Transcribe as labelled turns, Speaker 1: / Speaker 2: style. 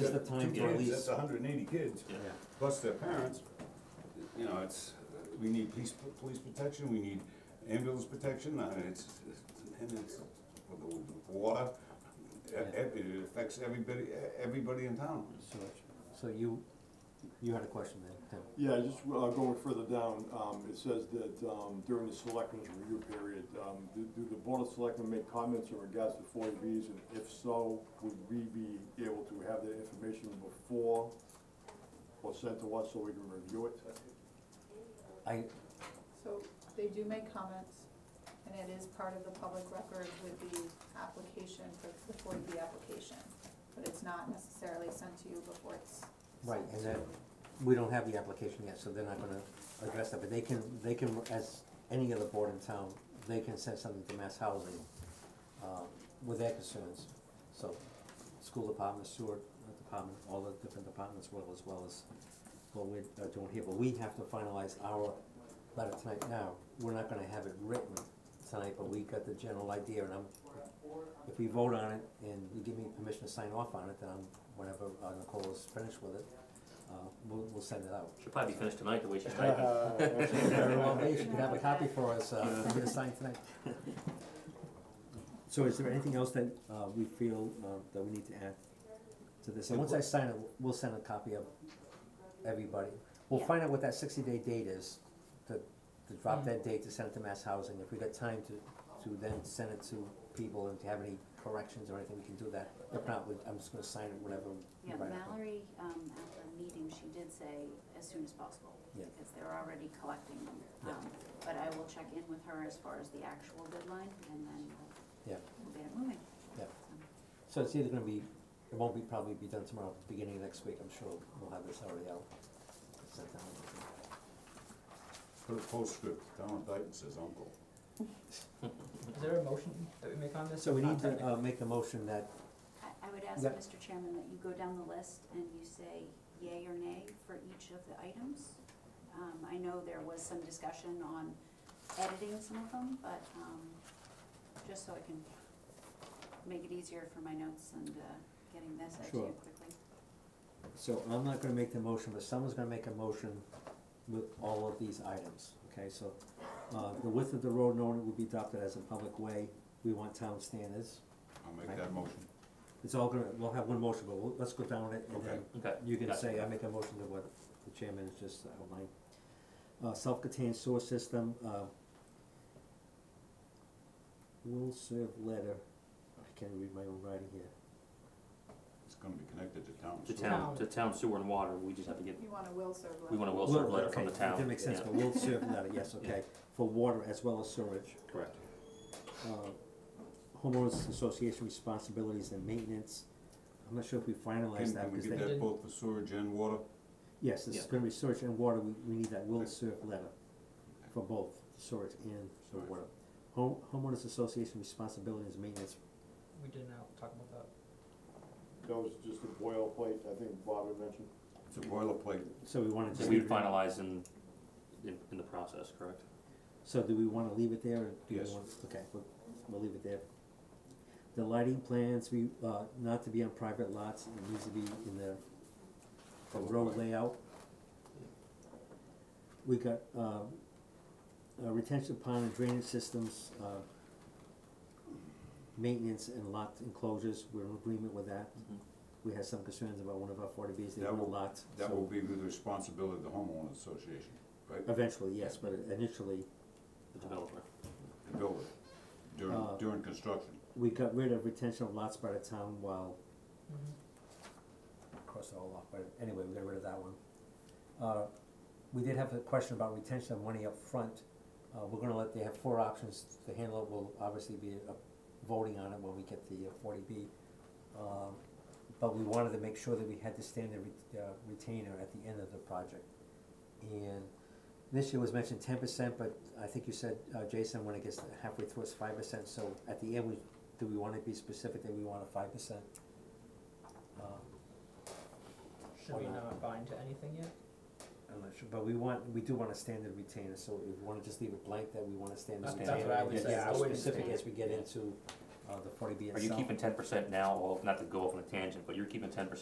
Speaker 1: Now's the time to
Speaker 2: Two kids,
Speaker 1: release.
Speaker 2: that's hundred and eighty kids,
Speaker 1: Yeah.
Speaker 2: plus their parents, you know, it's, we need police, police protection, we need ambulance protection, uh, it's, and it's, the water, e- e- it affects everybody, everybody in town.
Speaker 1: So, so you, you had a question then, Tim?
Speaker 3: Yeah, just uh, going further down, um, it says that um, during the selectmen's review period, um, do do the board of selectmen make comments in regards to forty Bs? And if so, would we be able to have that information before or sent to us so we can review it?
Speaker 1: I,
Speaker 4: So they do make comments, and it is part of the public record with the application for the forty B application. But it's not necessarily sent to you before it's
Speaker 1: right,
Speaker 4: sent
Speaker 1: and
Speaker 4: to.
Speaker 1: that, we don't have the application yet, so they're not gonna address that, but they can, they can, as any other board in town, they can send something to Mass Housing, uh, with their concerns. So, school department, sewer department, all the different departments will, as well as what we're uh, doing here, but we have to finalize our letter tonight now. We're not gonna have it written tonight, but we got the general idea, and I'm, if we vote on it and you give me permission to sign off on it, then I'm, whenever uh, Nicole is finished with it, uh, we'll, we'll send it out.
Speaker 5: She'll probably be finished tonight the way she's typing.
Speaker 1: Very well, maybe she could have a copy for us, uh, for you to sign tonight. So is there anything else that, uh, we feel, uh, that we need to add to this? And once I sign it, we'll send a copy of everybody. We'll
Speaker 6: Yeah.
Speaker 1: find out what that sixty-day date is, to, to
Speaker 6: Mm-hmm.
Speaker 1: drop that date to send it to Mass Housing. If we got time to, to then send it to people and to have any corrections or anything, we can do that. If not, we- I'm just gonna sign it whenever. we
Speaker 6: Yeah,
Speaker 1: write up.
Speaker 6: Mallory, um, at the meeting, she did say as soon as possible,
Speaker 1: Yeah.
Speaker 6: because they're already collecting them.
Speaker 1: Yeah.
Speaker 6: Um, But I will check in with her as far as the actual deadline, and then we'll-
Speaker 1: Yeah,
Speaker 6: we'll get it moving.
Speaker 1: yeah.
Speaker 6: So-
Speaker 1: So it's either gonna be, it won't be, probably be done tomorrow, beginning of next week, I'm sure we'll have this already out. sent out.
Speaker 2: Put a postscript, Town of Dayton says uncle.
Speaker 7: Is there a motion that we make on this?
Speaker 1: So we
Speaker 7: Not
Speaker 1: need to,
Speaker 7: technically.
Speaker 1: uh, make a motion that,
Speaker 6: I, I would ask,
Speaker 1: Yeah.
Speaker 6: Mr. Chairman, that you go down the list and you say yay or nay for each of the items. Um, I know there was some discussion on editing some of them, but, um, just so I can make it easier for my notes and, uh, getting this out to
Speaker 1: Sure.
Speaker 6: you quickly.
Speaker 1: so I'm not gonna make the motion, but someone's gonna make a motion with all of these items, okay, so, uh, the width of the road known will be adopted as a public way, we want town standards.
Speaker 2: I'll make that motion.
Speaker 1: It's all gonna, we'll have one motion, but we'll, let's go down it and then
Speaker 2: Okay.
Speaker 5: Okay.
Speaker 1: you can
Speaker 5: gotcha.
Speaker 1: say, I make a motion to what the chairman has just outlined. Uh, self-contained sewer system, uh, will serve letter, I can't read my own writing here.
Speaker 2: It's gonna be connected to town.
Speaker 5: To
Speaker 2: sewer.
Speaker 5: town, to town sewer and water, we just have to get,
Speaker 4: You want a will serve letter.
Speaker 5: we want a will serve
Speaker 1: Will,
Speaker 5: letter from the
Speaker 1: okay,
Speaker 5: town.
Speaker 1: That didn't make sense,
Speaker 5: yeah.
Speaker 1: but will serve letter, yes, okay, for water as well as sewage.
Speaker 2: Correct.
Speaker 1: Uh, Homeowners association responsibilities and maintenance, I'm not sure if we
Speaker 2: Can,
Speaker 1: finalized that,
Speaker 2: can we get
Speaker 1: because they,
Speaker 2: that both for sewage and water?
Speaker 1: yes, this is
Speaker 5: Yeah.
Speaker 1: gonna be sewage and water, we, we need that will
Speaker 2: Okay.
Speaker 1: serve letter for both sewage and the
Speaker 2: Sewage.
Speaker 1: water. Home, homeowners association responsibilities and maintenance,
Speaker 7: We did not talk about that.
Speaker 3: That was just a boilerplate, I think Bob had mentioned.
Speaker 2: It's a boilerplate,
Speaker 1: so we wanna
Speaker 5: So
Speaker 1: just
Speaker 5: we
Speaker 1: leave it,
Speaker 5: finalize in, in, in the process, correct?
Speaker 1: so do we wanna leave it there, or do we
Speaker 2: Yes.
Speaker 1: want, okay, we'll, we'll leave it there. The lighting plans, we, uh, not to be on private lots, it needs to be in the the
Speaker 2: Public
Speaker 1: road
Speaker 2: way.
Speaker 1: layout. We got, um, uh, retention pond and drainage systems, uh, maintenance and lot enclosures, we're in agreement with that.
Speaker 5: Mhm.
Speaker 1: We had some concerns about one of our forty Bs, they
Speaker 2: That
Speaker 1: were
Speaker 2: will-
Speaker 1: lots,
Speaker 2: that will
Speaker 1: so
Speaker 2: be the responsibility of the homeowner association, right?
Speaker 1: eventually, yes, but initially,
Speaker 5: The developer.
Speaker 2: The builder, during,
Speaker 1: Uh,
Speaker 2: during construction.
Speaker 1: we got rid of retention of lots by the town while cross it all off, but anyway, we got rid of that one. Uh, we did have a question about retention of money up front. Uh, we're gonna let, they have four options, the handler will obviously be uh, voting on it when we get the uh, forty B. Um, but we wanted to make sure that we had to stand the re- uh, retainer at the end of the project. And this year was mentioned ten percent, but I think you said, uh, Jason, when it gets halfway through, it's five percent, so at the end, we, do we wanna be specific that we want a five percent? Um,
Speaker 7: Should we not bind to anything yet?
Speaker 1: I'm not sure, but we want, we do want a standard retainer, so if we wanna just leave it blank that we want a standard
Speaker 7: That's-
Speaker 1: retainer.
Speaker 5: that's what I
Speaker 1: and
Speaker 5: would
Speaker 1: get
Speaker 5: say.
Speaker 1: as
Speaker 5: I wouldn't
Speaker 1: Specific
Speaker 6: stand-
Speaker 1: as we get
Speaker 5: yeah.
Speaker 1: into, uh, the forty B
Speaker 5: Are
Speaker 1: itself.
Speaker 5: you keeping ten percent now, or not to go off on a tangent, but you're keeping ten percent